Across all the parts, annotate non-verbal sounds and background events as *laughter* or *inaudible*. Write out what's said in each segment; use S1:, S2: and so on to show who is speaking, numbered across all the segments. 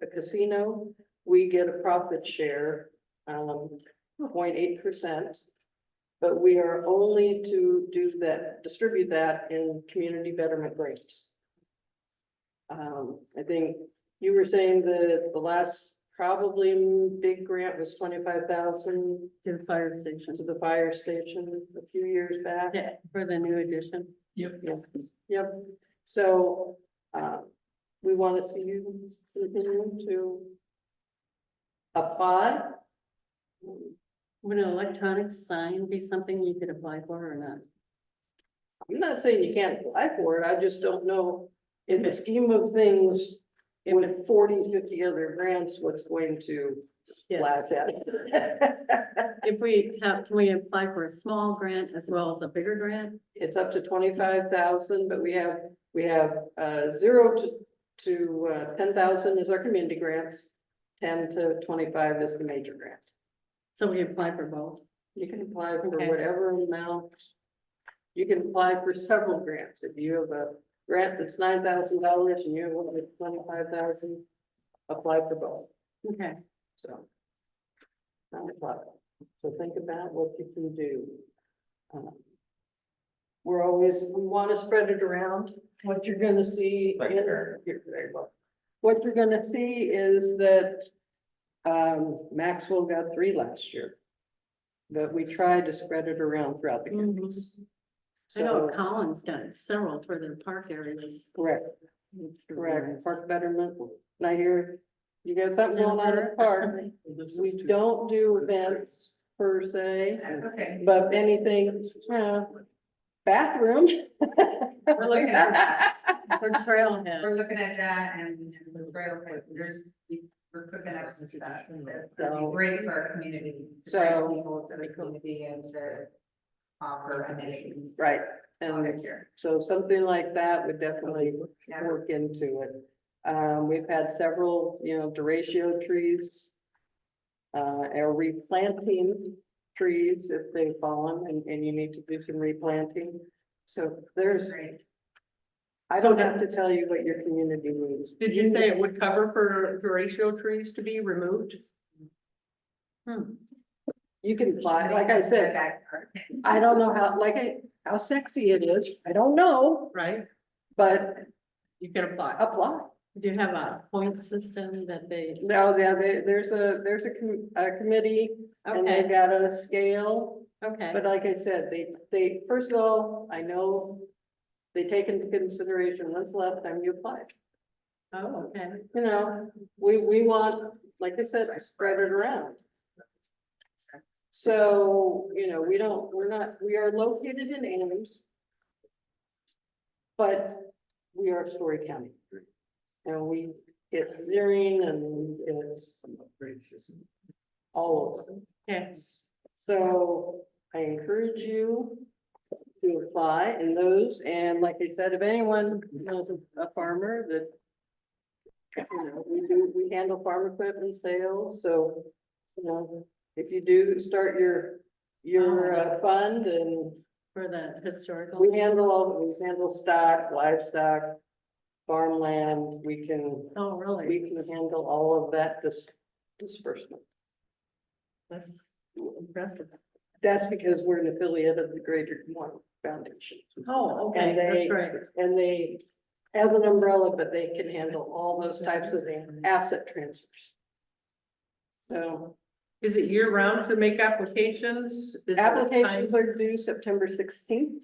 S1: the casino, we get a profit share, um, 0.8 percent. But we are only to do that, distribute that in community betterment grants. Um, I think you were saying that the last probably big grant was twenty-five thousand
S2: to the fire station
S1: to the fire station a few years back.
S2: Yeah, for the new addition.
S1: Yep, so, uh, we want to see you continue to apply.
S2: Would an electronic sign be something you could apply for or not?
S1: I'm not saying you can't apply for it, I just don't know in the scheme of things with 40, 50 other grants, what's going to splash out.
S2: If we have, can we apply for a small grant as well as a bigger grant?
S1: *laughs* It's up to twenty-five thousand, but we have, we have, uh, zero to, to, uh, ten thousand is our community grants. Ten to twenty-five is the major grant.
S2: So we apply for both.
S1: You can apply for
S2: Okay.
S1: whatever amount. You can apply for several grants. If you have a grant that's nine thousand dollars and you have one that's twenty-five thousand, apply for both,
S2: Okay,
S1: so. Not a problem. So think about what you can do. Um, We're always, we want to spread it around. What you're gonna see.
S3: Thank you,
S1: in-
S3: Karen.
S1: You're very welcome. What you're gonna see is that um, Maxwell got three last year. But we tried to spread it around throughout the
S2: Mhm.
S1: campus.
S2: I know
S1: So,
S2: Collins got several for their park areas.
S1: correct,
S2: It's
S1: correct,
S2: nice.
S1: park betterment, and I hear you got something going on in the
S2: *laughs*
S1: park. We don't do events per se,
S4: Okay.
S1: but anything, uh, bathroom. *laughs*
S4: We're looking at,
S2: *laughs* For trailhead.
S4: we're looking at that and and the trail, but there's, we're cooking up some stuff. That's gonna
S1: So-
S4: be great for our community, to
S1: So-
S4: bring people to the community and to offer amenities.
S1: Right,
S4: All
S1: and
S4: next year.
S1: so something like that would definitely
S4: Yeah.
S1: work into it. Um, we've had several, you know, deratio trees. Uh, or replanting trees if they've fallen and, and you need to do some replanting. So there's,
S4: Great.
S1: I don't have to tell you what your community needs.
S5: Did you say it would cover for ratio trees to be removed?
S2: Hmm.
S1: You can fly, like I said,
S4: Backyard.
S1: I don't know how, like, I- how sexy it is, I don't know,
S5: Right,
S1: but
S5: you can apply.
S1: apply.
S2: Do you have a point system that they,
S1: No, yeah, there, there's a, there's a com- a committee and they've
S2: okay,
S1: got a scale
S2: okay,
S1: But like I said, they, they, first of all, I know they take into consideration when's the last time you applied.
S2: oh, okay.
S1: You know, we, we want, like I said, I spread it around. So, you know, we don't, we're not, we are located in Ames. But we are Story County. And we get zeroing and we get all of them.
S2: Okay,
S1: So I encourage you to apply in those, and like I said, if anyone knows a farmer that. You know, we do, we handle farm equipment sales, so, you know, if you do start your, your uh, fund and
S2: for the historical.
S1: we handle, all we handle stock, livestock. Farmland, we can,
S2: Oh, really?
S1: we can handle all of that dis- disbursement.
S2: That's impressive.
S1: That's because we're an affiliate of the Greater Des Moines Foundation.
S2: Oh, okay,
S1: And they,
S2: that's right.
S1: and they, as an umbrella, but they can handle all those types of asset transfers. So
S5: Is it year round to make applications? Is there a time-
S1: applications are due September sixteenth.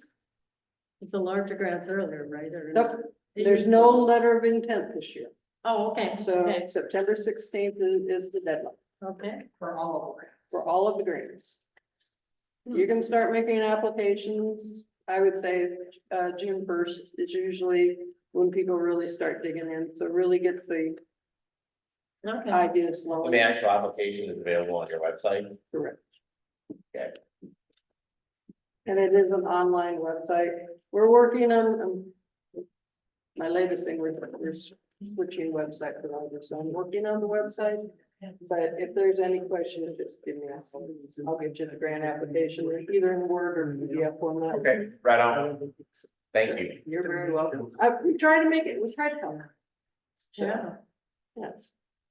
S2: It's a larger grants earlier, right? or
S1: Nope,
S2: not? It
S1: there's
S2: used to
S1: no
S2: be.
S1: letter of intent this year,
S2: Oh, okay,
S1: so
S2: okay,
S1: September sixteenth is, is the deadline
S2: okay.
S4: For all of us.
S1: for all of the grants. You can start making applications, I would say, uh, June first is usually when people really start digging in, so really get the
S2: Okay,
S1: ideas flowing.
S3: The actual application is available on your website.
S1: Correct.
S3: Okay.
S1: And it is an online website. We're working on, um, my latest thing, we're, we're switching website providers. So I'm working on the website. But if there's any questions, just give me a call. I'll get you the grant application, either in Word or PDF format.
S3: Okay, right on. Thank you.
S1: You're very welcome. I, we try to make it, we try to help.
S2: yeah,
S1: Yes.